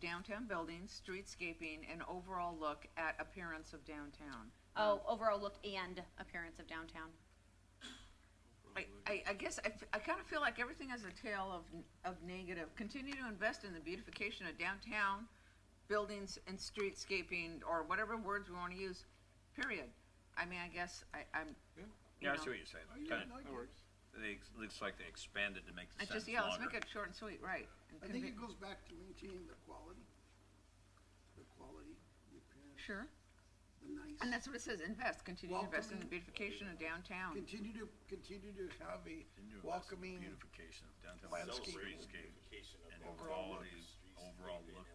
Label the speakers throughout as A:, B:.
A: downtown buildings, streetscaping, and overall look at appearance of downtown.
B: Oh, overall look and appearance of downtown.
A: I, I, I guess I, f- I kind of feel like everything has a tale of, n- of negative. Continue to invest in the beautification of downtown buildings and streetscaping, or whatever words we want to use, period. I mean, I guess I, I'm, you
C: Yeah, I
A: know,
C: see what you're saying.
D: Oh, yeah,
C: Kind of,
D: I like it.
C: they, ex- looks like they expanded to make the
A: I
C: sentence
A: just, yeah, let's make
C: longer.
A: it short and sweet, right. and
D: I think it
A: convi-
D: goes back to maintaining the quality, the quality, the appearance,
A: Sure.
D: the nice.
A: And that's what it says, invest, continue to invest in the
D: Welcoming.
A: beautification of downtown.
D: Continue to, continue to have a
C: Then you invest in
D: welcoming,
C: Beautification of downtown
D: landscape.
C: streetscape and
D: Overall look.
C: quality, overall look.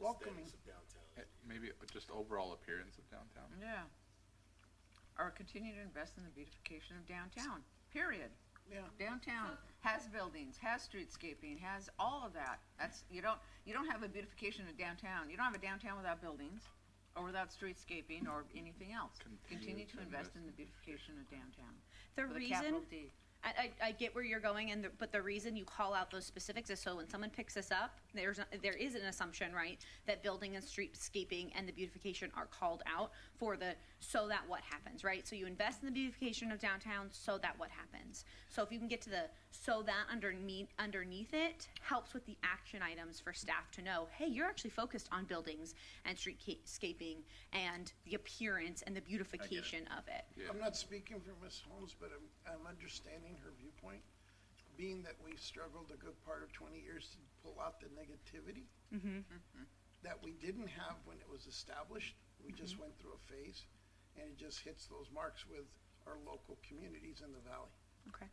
D: welcoming,
E: Eh, Maybe just overall appearance of downtown.
A: Yeah. Or continue to invest in the beautification of downtown, period.
D: yeah.
A: Downtown has buildings, has streetscaping, has all of that. That's, you don't, you don't have a beautification of downtown. You don't have a downtown without buildings or without streetscaping or anything else. Continue to invest in the beautification of downtown.
B: The
A: With a
B: reason,
A: capital D.
B: I, I, I get where you're going and, the- but the reason you call out those specifics is so when someone picks this up, there's, a- there is an assumption, right? That building and streetscaping and the beautification are called out for the, so that what happens, right? So you invest in the beautification of downtown, so that what happens? So if you can get to the, so that underneath, underneath it, helps with the action items for staff to know, hey, you're actually focused on buildings and streetscaping and the appearance and the beautification of it.
D: I'm not speaking for Ms. Holmes, but I'm, I'm understanding her viewpoint, being that we struggled a good part of twenty years to pull out the negativity that we didn't have when it was established, we just went through a phase, and it just hits those marks with our local communities in the valley.
B: Okay.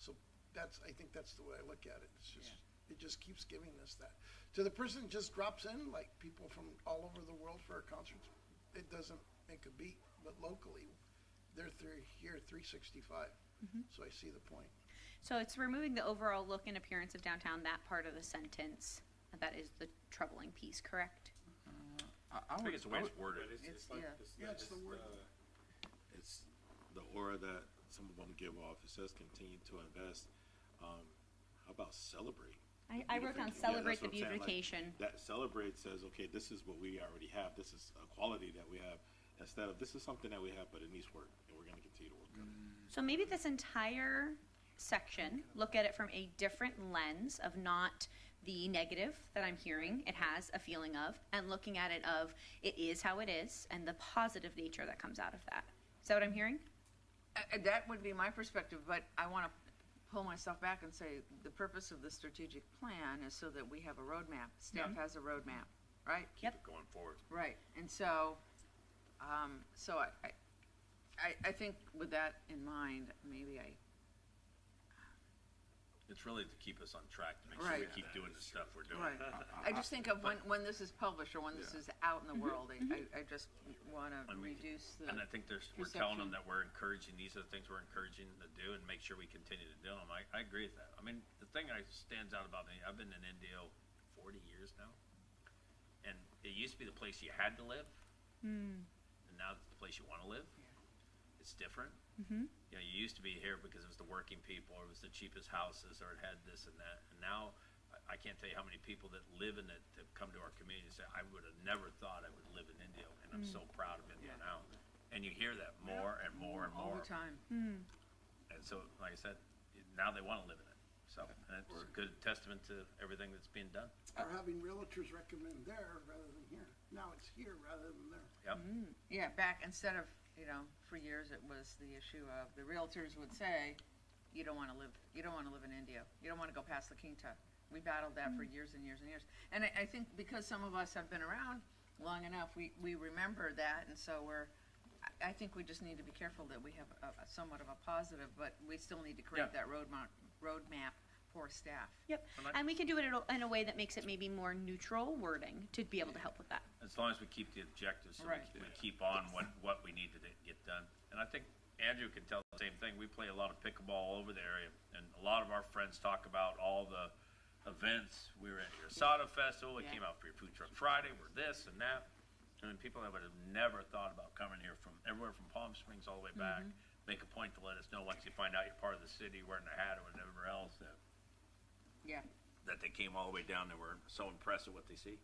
D: So that's, I think that's the way I look at it. It's just, it just keeps giving us that. To the person that just drops in, like people from all over the world for our concerts, it doesn't make a beat, but locally, they're three, here three sixty-five. So I see the point.
B: So it's removing the overall look and appearance of downtown, that part of the sentence. That is the troubling piece, correct?
E: I,
C: I think it's the way it's worded.
A: It's, yeah.
D: Yeah, it's the word.
F: uh, It's the aura that some of them give off. It says continue to invest. Um, how about celebrate?
B: I, I wrote down
F: Beautification. Yeah,
B: celebrate the
F: that's what I'm saying, like,
B: beautification.
F: That celebrate says, okay, this is what we already have. This is a quality that we have. Instead of, this is something that we have, but it needs work and we're gonna continue to work on it.
B: So maybe this entire section, look at it from a different lens of not the negative that I'm hearing it has a feeling of, and looking at it of it is how it is and the positive nature that comes out of that. Is that what I'm hearing?
A: Uh, uh, That would be my perspective, but I want to pull myself back and say, the purpose of the strategic plan is so that we have a roadmap. Staff
B: Mm-hmm.
A: has a roadmap, right?
B: Yep.
C: Keep it going forward.
A: Right, and so, um, so I, I- I, I think with that in mind, maybe I,
C: It's really to keep us on track, to make sure we
A: Right.
C: keep doing the stuff we're doing.
A: right. I just think of when, when this is published or when this is out in the world, I, I- I just want to
C: And we can-
A: reduce the,
C: And I think there's, we're
A: perception.
C: telling them that we're encouraging, these are the things we're encouraging to do and make sure we continue to do them. I, I agree with that. I mean, the thing that stands out about me, I've been in NDO forty years now. And it used to be the place you had to live.
A: Hmm.
C: And now it's the place you wanna live. It's different.
A: Mm-hmm.
C: You know, you used to be here because it was the working people, or it was the cheapest houses, or it had this and that. And now, I, I can't tell you how many people that live in it that come to our community and say, I would have never thought I would live in Indio, and I'm
A: Mm.
C: so proud of Indio now. And you hear that more and more and
A: all
C: more.
A: the time.
C: And so, like I said, it- now they wanna live in it. So, and it's a good testament to everything that's being done.
D: Or having realtors recommend there rather than here. Now it's here rather than there.
C: Yep.
A: Mm-hmm. Yeah, back, instead of, you know, for years, it was the issue of, the realtors would say, you don't wanna live, you don't wanna live in India, you don't wanna go past La Quinta. We battled that for years and years and years. And I, I think because some of us have been around long enough, we, we remember that, and so we're, I, I think we just need to be careful that we have a, a somewhat of a positive, but we still need to create
C: Yeah.
A: that roadmap, roadmap for staff.
B: Yep.
C: And I-
B: And we can do it in a, in a way that makes it maybe more neutral wording to be able to help with that.
C: As long as we keep the objectives, so we,
A: Right.
C: we keep on what, what we need to d- get done. And I think Andrew can tell the same thing. We play a lot of pickleball all over the area, and a lot of our friends talk about all the events. We were at your Asada Festival, we
A: Yeah.
C: came out for your Food Truck Friday, we're this and that. I mean, people that would have never thought about coming here from everywhere from Palm Springs all the way back,
A: Mm-hmm.
C: make a point to let us know once you find out you're part of the city, wearing a hat or whatever else, that,
A: Yeah.
C: that they came all the way down, they were so impressed with what they see.